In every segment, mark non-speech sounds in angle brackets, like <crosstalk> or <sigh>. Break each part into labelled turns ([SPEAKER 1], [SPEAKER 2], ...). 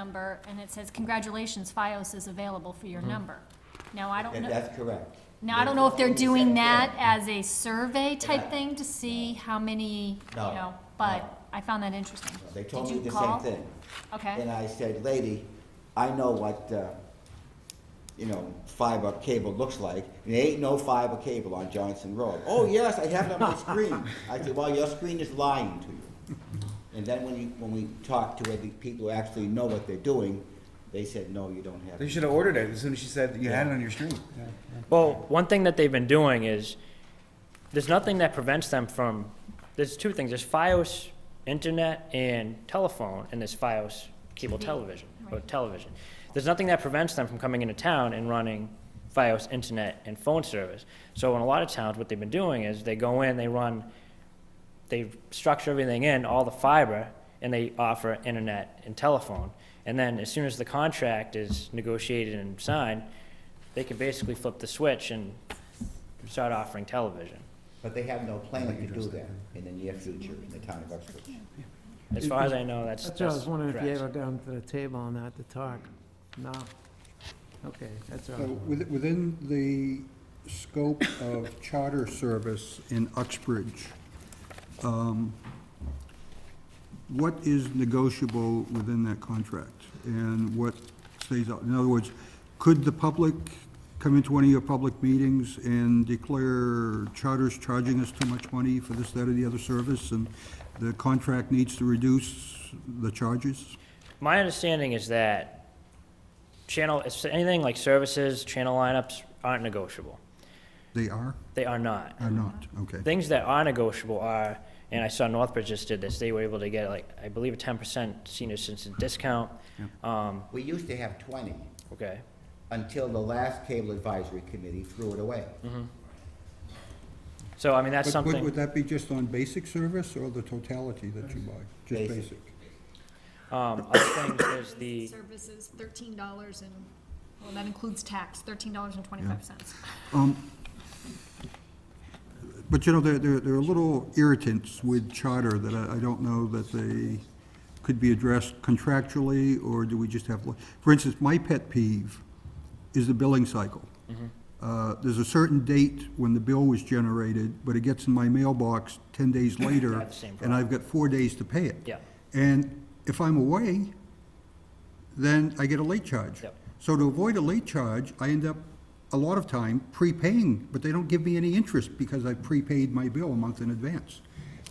[SPEAKER 1] number, and it says, congratulations, FiOS is available for your number. Now, I don't
[SPEAKER 2] Mm-hmm. And
[SPEAKER 1] know,
[SPEAKER 2] that's correct.
[SPEAKER 1] now, I don't know if they're doing that as a survey type thing to see how many, you
[SPEAKER 2] No,
[SPEAKER 1] know,
[SPEAKER 2] no.
[SPEAKER 1] but I found that interesting.
[SPEAKER 2] They told
[SPEAKER 1] Did
[SPEAKER 2] me
[SPEAKER 1] you
[SPEAKER 2] the
[SPEAKER 1] call?
[SPEAKER 2] same thing. And
[SPEAKER 1] Okay,
[SPEAKER 2] I said, lady, I know what, uh, you know, fiber cable looks like, and there ain't no fiber cable on Johnson
[SPEAKER 1] <laughs>
[SPEAKER 2] Road. Oh, yes, I have it on my screen. I said, well, your screen is lying to you. And then when you, when we talked to the people who actually know what they're doing, they said, no, you don't have
[SPEAKER 3] They
[SPEAKER 2] it.
[SPEAKER 3] should have ordered it as soon as she said that you had it on your screen. Uh,
[SPEAKER 4] Well, one thing that they've been doing is, there's nothing that prevents them from, there's two things, there's FiOS internet and telephone, and there's FiOS cable television, or
[SPEAKER 1] right.
[SPEAKER 4] television. There's nothing that prevents them from coming into town and running FiOS internet and phone service. So in a lot of towns, what they've been doing is, they go in, they run, they structure everything in, all the fiber, and they offer internet and telephone. And then as soon as the contract is negotiated and signed, they can basically flip the switch and start offering television.
[SPEAKER 2] But they have no plan to do that in the near future in the town of Uxbridge.
[SPEAKER 4] As far as I know, that's,
[SPEAKER 5] That's what I
[SPEAKER 4] that's
[SPEAKER 5] was wondering if you
[SPEAKER 4] correct.
[SPEAKER 5] ever down to the table on that to talk. No? Okay, that's all.
[SPEAKER 6] So with- Within the scope of charter service in Uxbridge, um, what is negotiable within that contract? And what stays out? In other words, could the public come into one of your public meetings and declare charter's charging us too much money for this, that, or the other service? And the contract needs to reduce the charges?
[SPEAKER 4] My understanding is that channel, it's anything like services, channel lineups aren't negotiable.
[SPEAKER 6] They are
[SPEAKER 4] They are not.
[SPEAKER 6] or not? Okay.
[SPEAKER 4] Things that are negotiable are, and I saw Northbridge just did this, they were able to get like, I believe a ten percent senior citizen discount. Um,
[SPEAKER 2] We used to have twenty.
[SPEAKER 4] okay.
[SPEAKER 2] until the last cable advisory committee threw it away.
[SPEAKER 4] So, I mean, that's
[SPEAKER 6] But would,
[SPEAKER 4] something.
[SPEAKER 6] would that be just on basic service or the totality that you buy? Just
[SPEAKER 2] Basic.
[SPEAKER 6] basic?
[SPEAKER 4] Um, other things, there's the,
[SPEAKER 1] services, thirteen dollars and, well, that includes tax, thirteen dollars and twenty-five cents.
[SPEAKER 6] Um, But you know, there, there, there are little irritants with charter that I, I don't know that they could be addressed contractually, or do we just have, for instance, my pet peeve is the billing cycle.
[SPEAKER 4] Mm-hmm.
[SPEAKER 6] Uh, There's a certain date when the bill was generated, but it gets in my mailbox
[SPEAKER 4] <coughs>
[SPEAKER 6] ten days later.
[SPEAKER 4] have the same
[SPEAKER 6] And I've got four days to pay it.
[SPEAKER 4] Yeah.
[SPEAKER 6] And if I'm away, then I get a late charge.
[SPEAKER 4] Yep.
[SPEAKER 6] So to avoid a late charge, I end up, a lot of time, prepaying, but they don't give me any interest because I prepaid my bill a month in advance.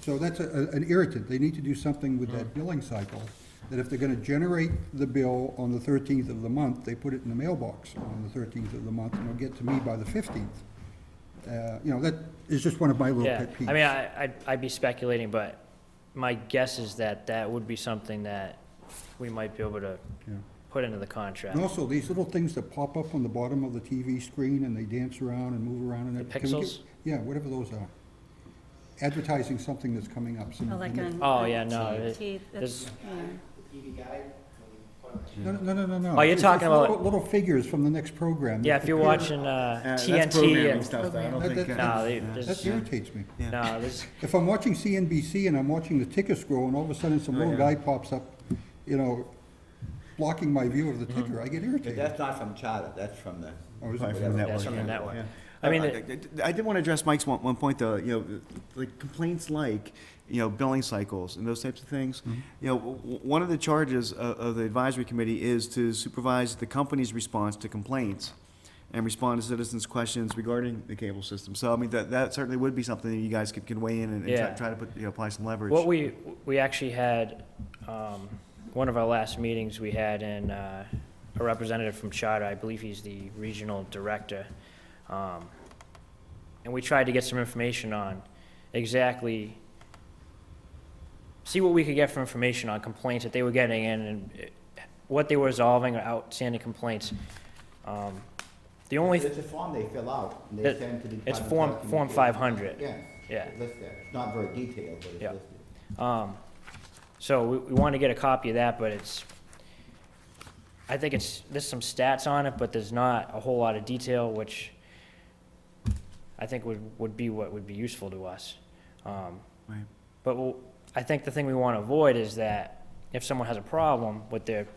[SPEAKER 6] So that's a- a- an irritant. They need to do something with
[SPEAKER 4] Mm.
[SPEAKER 6] that billing cycle, that if they're going to generate the bill on the 13th of the month, they put it in the mailbox on the 13th of the month, and it'll get to me by the 15th. Uh, You know, that is just one of my little
[SPEAKER 4] yeah,
[SPEAKER 6] pet peeves.
[SPEAKER 4] I mean, I, I'd, I'd be speculating, but my guess is that that would be something that we might be able to
[SPEAKER 6] Yeah.
[SPEAKER 4] put into the contract.
[SPEAKER 6] And also, these little things that pop up on the bottom of the TV screen and they dance around and move around and.
[SPEAKER 4] The
[SPEAKER 6] everything. Can we
[SPEAKER 4] pixels?
[SPEAKER 6] get- Yeah, whatever those are. Advertising something that's coming up. some-
[SPEAKER 7] Oh, like on.
[SPEAKER 4] Oh, yeah, no,
[SPEAKER 7] on
[SPEAKER 4] it-
[SPEAKER 7] TV, that's-
[SPEAKER 4] there's-
[SPEAKER 7] yeah.
[SPEAKER 6] No, no, no, no, no.
[SPEAKER 4] Oh, you're
[SPEAKER 6] It's-
[SPEAKER 4] talking
[SPEAKER 6] it's little-
[SPEAKER 4] about-
[SPEAKER 6] Little figures from the next program. that
[SPEAKER 4] Yeah, if you're
[SPEAKER 6] appear.
[SPEAKER 4] watching uh,
[SPEAKER 3] Uh, That's
[SPEAKER 4] TNT,
[SPEAKER 3] programming
[SPEAKER 4] and-
[SPEAKER 3] stuff, though. I don't
[SPEAKER 6] That-
[SPEAKER 3] think.
[SPEAKER 6] that-
[SPEAKER 3] uh,
[SPEAKER 4] no, they-
[SPEAKER 3] yeah.
[SPEAKER 4] there's,
[SPEAKER 6] That irritates me.
[SPEAKER 4] no, there's,
[SPEAKER 6] If I'm watching CNBC and I'm watching the ticker scroll and all of a sudden some
[SPEAKER 3] Oh,
[SPEAKER 6] little
[SPEAKER 3] yeah.
[SPEAKER 6] guy pops up, you know, blocking my view of the
[SPEAKER 4] Mm-hmm.
[SPEAKER 6] ticker, I get
[SPEAKER 2] But
[SPEAKER 6] irritated.
[SPEAKER 2] that's not from charter, that's from the.
[SPEAKER 6] Oh, is it?
[SPEAKER 3] Probably from the
[SPEAKER 2] Whatever.
[SPEAKER 3] network,
[SPEAKER 4] that's from the
[SPEAKER 3] yeah.
[SPEAKER 4] network.
[SPEAKER 3] Yeah.
[SPEAKER 4] I mean,
[SPEAKER 3] Uh,
[SPEAKER 4] it-
[SPEAKER 3] I I did want to address Mike's one, one point though, you know, like complaints like, you know, billing cycles and those types of things.
[SPEAKER 4] Mm-hmm.
[SPEAKER 3] You know, w- w- one of the charges of, of the advisory committee is to supervise the company's response to complaints and respond to citizens' questions regarding the cable system. So I mean, that, that certainly would be something that you guys could, could weigh in and and try,
[SPEAKER 4] Yeah.
[SPEAKER 3] try to put, you know, apply some leverage.
[SPEAKER 4] What we, we actually had, um, one of our last meetings, we had in, uh, a representative from Charter, I believe he's the regional director. Um, and we tried to get some information on exactly, see what we could get from information on complaints that they were getting in and eh, what they were resolving or outstanding complaints. Um, the only,
[SPEAKER 2] It's a form they fill out and they
[SPEAKER 4] It-
[SPEAKER 2] send to the.
[SPEAKER 4] it's
[SPEAKER 2] Department of
[SPEAKER 4] Form, Form
[SPEAKER 2] Telecommunications.
[SPEAKER 4] five hundred.
[SPEAKER 2] Yeah.
[SPEAKER 4] Yeah.
[SPEAKER 2] It's listed. It's not very detailed, but it's
[SPEAKER 4] Yeah.
[SPEAKER 2] listed.
[SPEAKER 4] Um, so we, we want to get a copy of that, but it's, I think it's, there's some stats on it, but there's not a whole lot of detail, which I think would, would be what would be useful to us. Um,
[SPEAKER 3] Right.
[SPEAKER 4] but we'll- I think the thing we want to avoid is that if someone has a problem with their